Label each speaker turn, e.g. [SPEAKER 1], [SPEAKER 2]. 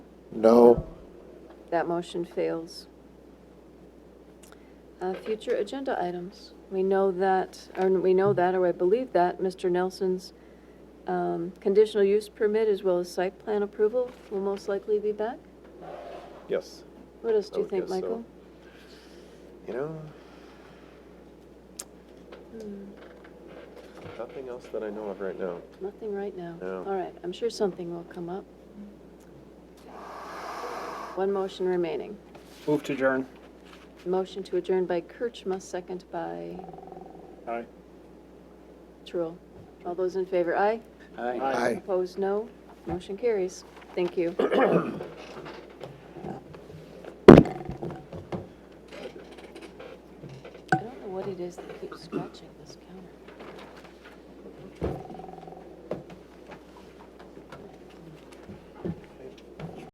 [SPEAKER 1] No.
[SPEAKER 2] That motion fails. Uh, Future agenda items. We know that, or we know that, or I believe that, Mr. Nelson's um, conditional use permit as well as site plan approval will most likely be back.
[SPEAKER 1] Yes.
[SPEAKER 2] What else
[SPEAKER 1] I
[SPEAKER 2] do you
[SPEAKER 1] would
[SPEAKER 2] think,
[SPEAKER 1] guess so.
[SPEAKER 2] Michael?
[SPEAKER 1] You know,
[SPEAKER 2] Hmm,
[SPEAKER 1] nothing else that I know of right now.
[SPEAKER 2] Nothing right now.
[SPEAKER 1] No.
[SPEAKER 2] All right, I'm sure something will come up. One motion remaining.
[SPEAKER 3] Move to adjourn.
[SPEAKER 2] Motion to adjourn by Kirchma, second by
[SPEAKER 3] Aye.
[SPEAKER 2] Truul. All those in favor, aye?
[SPEAKER 3] Aye.
[SPEAKER 2] Opposed, no. Motion carries. Thank you. I don't know what it is that keeps scratching this cat.